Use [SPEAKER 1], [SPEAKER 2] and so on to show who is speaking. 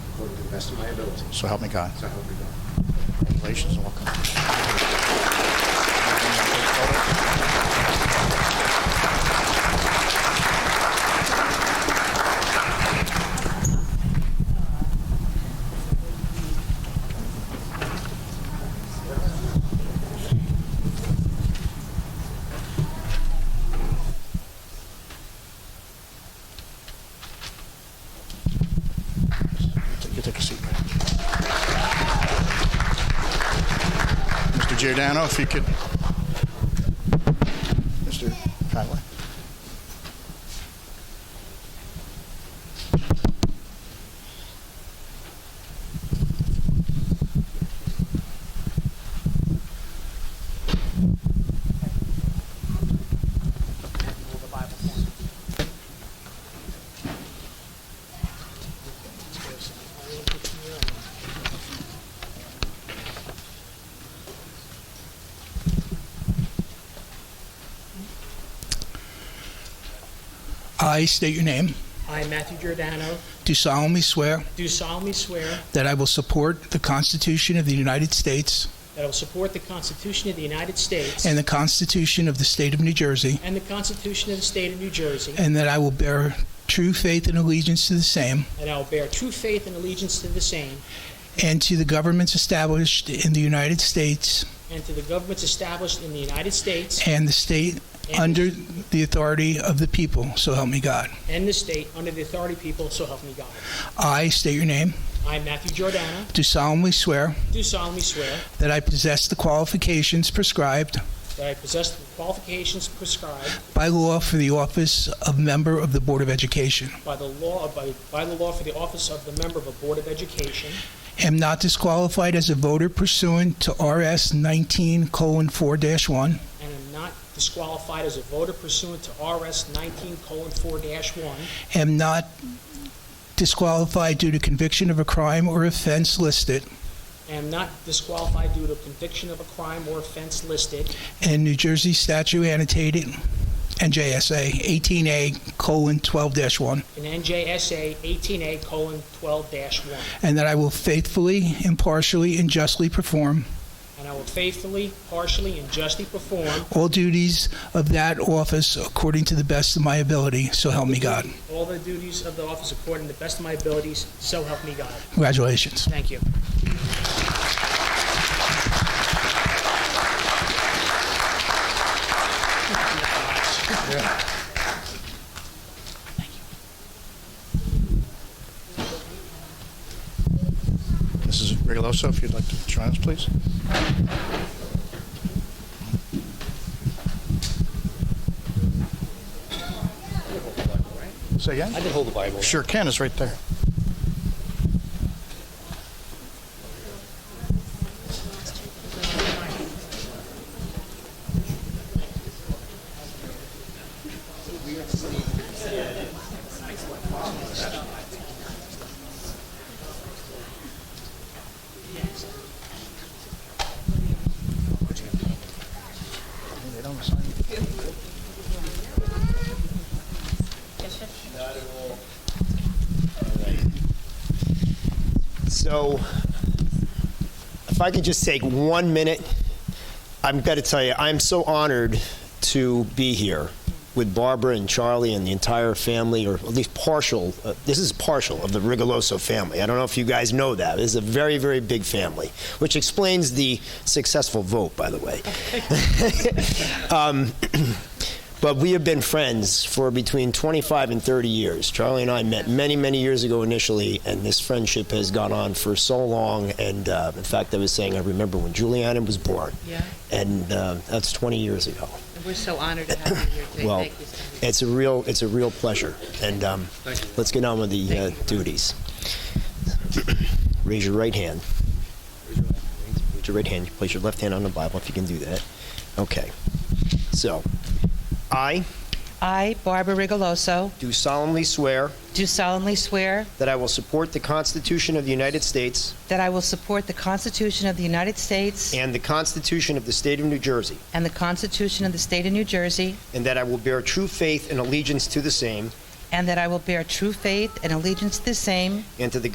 [SPEAKER 1] the best of my ability.
[SPEAKER 2] So help me God.
[SPEAKER 1] So help me God.
[SPEAKER 2] Congratulations and welcome. You take a seat, man. Mr. Giordano, if you could. Mr. Conway.
[SPEAKER 3] I state your name,
[SPEAKER 4] I, Matthew Giordano,
[SPEAKER 3] do solemnly swear
[SPEAKER 4] do solemnly swear
[SPEAKER 3] that I will support the Constitution of the United States
[SPEAKER 4] that I will support the Constitution of the United States
[SPEAKER 3] and the Constitution of the State of New Jersey,
[SPEAKER 4] and the Constitution of the State of New Jersey,
[SPEAKER 3] and that I will bear true faith and allegiance to the same
[SPEAKER 4] and I will bear true faith and allegiance to the same
[SPEAKER 3] and to the governments established in the United States
[SPEAKER 4] and to the governments established in the United States
[SPEAKER 3] and the state
[SPEAKER 4] and-
[SPEAKER 3] under the authority of the people. So help me God.
[SPEAKER 4] and the state under the authority of people, so help me God.
[SPEAKER 3] I state your name,
[SPEAKER 4] I, Matthew Giordano,
[SPEAKER 3] do solemnly swear
[SPEAKER 4] do solemnly swear
[SPEAKER 3] that I possess the qualifications prescribed
[SPEAKER 4] that I possess the qualifications prescribed
[SPEAKER 3] by law for the office of member of the Board of Education.
[SPEAKER 4] by the law, by, by the law for the office of the member of a Board of Education,
[SPEAKER 3] am not disqualified as a voter pursuant to RS 19 colon 4 dash 1,
[SPEAKER 4] and am not disqualified as a voter pursuant to RS 19:4-1,
[SPEAKER 3] am not disqualified due to conviction of a crime or offense listed
[SPEAKER 4] am not disqualified due to conviction of a crime or offense listed
[SPEAKER 3] in New Jersey statute annotated NJSA 18A colon 12 dash 1,
[SPEAKER 4] in NJSA 18A:12-1,
[SPEAKER 3] and that I will faithfully, impartially, and justly perform
[SPEAKER 4] and I will faithfully, partially, and justly perform
[SPEAKER 3] all duties of that office according to the best of my ability. So help me God.
[SPEAKER 4] all the duties of the office according to the best of my abilities, so help me God.
[SPEAKER 3] Congratulations.
[SPEAKER 4] Thank you.
[SPEAKER 2] Mrs. Reguloso, if you'd like to join us, please. Say again?
[SPEAKER 5] I can hold the Bible.
[SPEAKER 2] Sure can, it's right there. They don't sign it.
[SPEAKER 5] So, if I could just take one minute, I've got to tell you, I'm so honored to be here with Barbara and Charlie and the entire family, or at least partial. Uh, this is partial of the Rigoloso family. I don't know if you guys know that. This is a very, very big family, which explains the successful vote, by the way. But we have been friends for between 25 and 30 years. Charlie and I met many, many years ago initially, and this friendship has gone on for so long. And uh, in fact, I was saying, I remember when Juliana was born.
[SPEAKER 6] Yeah.
[SPEAKER 5] And uh, that's 20 years ago.
[SPEAKER 6] We're so honored to have you here today.
[SPEAKER 5] Well,
[SPEAKER 6] Thank you so much.
[SPEAKER 5] it's a real, it's a real pleasure. And um, let's get on with the uh, duties. Raise your right hand. Raise your right hand. Place your left hand on the Bible if you can do that. Okay. So, I
[SPEAKER 6] I, Barbara Rigoloso,
[SPEAKER 5] do solemnly swear.
[SPEAKER 6] do solemnly swear
[SPEAKER 5] That I will support the Constitution of the United States
[SPEAKER 6] that I will support the Constitution of the United States
[SPEAKER 5] and the Constitution of the State of New Jersey,
[SPEAKER 6] and the Constitution of the State of New Jersey,
[SPEAKER 5] and that I will bear true faith and allegiance to the same
[SPEAKER 6] and that I will bear true faith and allegiance to the same
[SPEAKER 5] and to the